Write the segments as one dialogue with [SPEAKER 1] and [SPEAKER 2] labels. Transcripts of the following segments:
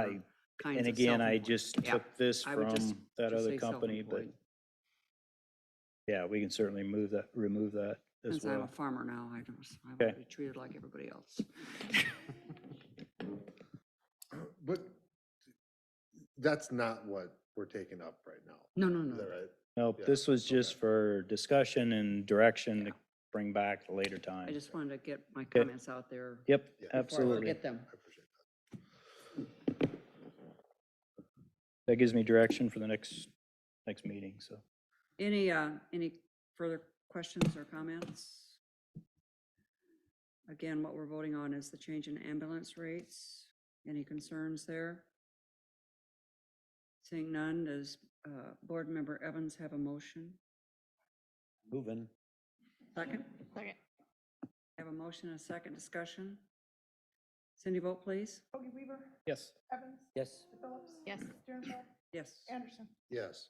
[SPEAKER 1] I-
[SPEAKER 2] kinds
[SPEAKER 1] And
[SPEAKER 2] of
[SPEAKER 1] again, I
[SPEAKER 2] self-employed.
[SPEAKER 1] just
[SPEAKER 2] Yeah,
[SPEAKER 1] took this
[SPEAKER 2] I would just-
[SPEAKER 1] from that
[SPEAKER 2] Just
[SPEAKER 1] other
[SPEAKER 2] say
[SPEAKER 1] company, but
[SPEAKER 2] self-employed.
[SPEAKER 1] yeah, we can certainly move that, remove that as
[SPEAKER 2] Since I'm a
[SPEAKER 1] well.
[SPEAKER 2] farmer now, I don't, I want
[SPEAKER 1] Okay.
[SPEAKER 2] to be treated like everybody else.
[SPEAKER 3] But that's not what we're taking up right now.
[SPEAKER 2] No, no,
[SPEAKER 3] Is
[SPEAKER 2] no.
[SPEAKER 3] that right?
[SPEAKER 1] Nope,
[SPEAKER 3] yeah,
[SPEAKER 1] this was
[SPEAKER 3] okay.
[SPEAKER 1] just for discussion and direction to
[SPEAKER 2] Yeah.
[SPEAKER 1] bring back at a later time.
[SPEAKER 2] I just wanted to get my comments out there.
[SPEAKER 1] Yep,
[SPEAKER 3] Yeah. Before I
[SPEAKER 2] Before I
[SPEAKER 1] absolutely.
[SPEAKER 2] forget them.
[SPEAKER 3] I appreciate that.
[SPEAKER 1] That gives me direction for the next, next meeting, so.
[SPEAKER 2] Any, uh, any further questions or comments? Again, what we're voting on is the change in ambulance rates. Any concerns there? Seeing none, does, uh, Board Member Evans have a motion?
[SPEAKER 4] Moving.
[SPEAKER 2] Second?
[SPEAKER 5] Second.
[SPEAKER 2] Have a motion and a second discussion? Cindy, vote please.
[SPEAKER 6] Ogie Weaver,
[SPEAKER 1] Yes.
[SPEAKER 6] Evans,
[SPEAKER 4] Yes.
[SPEAKER 6] Phillips.
[SPEAKER 5] Yes.
[SPEAKER 6] Sternbach,
[SPEAKER 2] Yes.
[SPEAKER 6] Anderson.
[SPEAKER 3] Yes,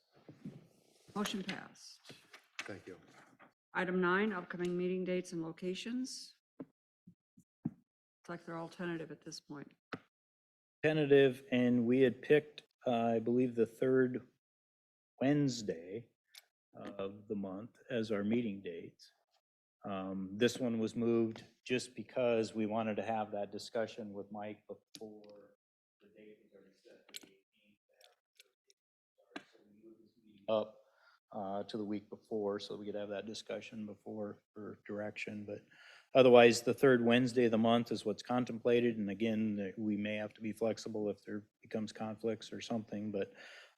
[SPEAKER 2] Motion passed.
[SPEAKER 3] thank you.
[SPEAKER 2] Item nine, upcoming meeting dates and locations. It's like they're all tentative at this point.
[SPEAKER 1] Tentative, and we had picked, uh, I believe, the third Wednesday of the month as our meeting date. Um, This one was moved just because we wanted to have that discussion with Mike before the date was already set. the 18th. So we moved this meeting Up uh, to the week before, so we could have that discussion before for direction, but Otherwise, the third Wednesday of the month is what's contemplated, and again, that we may have to be flexible if there becomes conflicts or something, but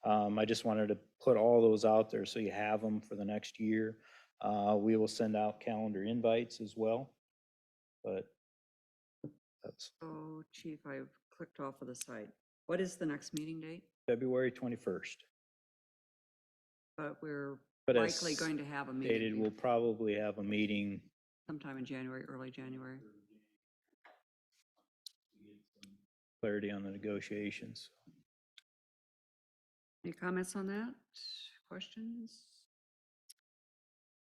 [SPEAKER 1] um, I just wanted to put all those out there so you have them for the next year. Uh, We will send out calendar invites as well, but that's
[SPEAKER 2] Oh, chief, I've clicked off of the site. What is the next meeting date?
[SPEAKER 1] February 21st.
[SPEAKER 2] But we're
[SPEAKER 1] But as
[SPEAKER 2] likely going to have a
[SPEAKER 1] stated,
[SPEAKER 2] meeting
[SPEAKER 1] we'll
[SPEAKER 2] here
[SPEAKER 1] probably have a meeting
[SPEAKER 2] sometime in January, early January.
[SPEAKER 1] clarity on the negotiations.
[SPEAKER 2] Any comments on that? Questions?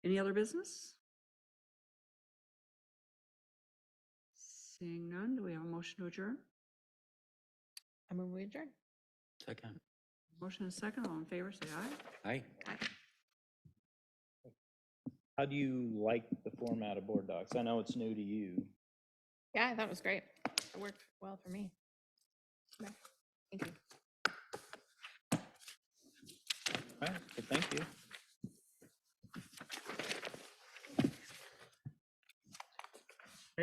[SPEAKER 2] Any other business? Seeing none, do we have a motion to adjourn?
[SPEAKER 5] I move we adjourn.
[SPEAKER 4] Second.
[SPEAKER 2] Motion and second, all in favor, say aye.
[SPEAKER 4] Aye.
[SPEAKER 1] How do you like the format of board docs? I know it's new to you.
[SPEAKER 5] Yeah, that was great. It worked well for me. Okay, Thank you.
[SPEAKER 1] All right, well, thank you.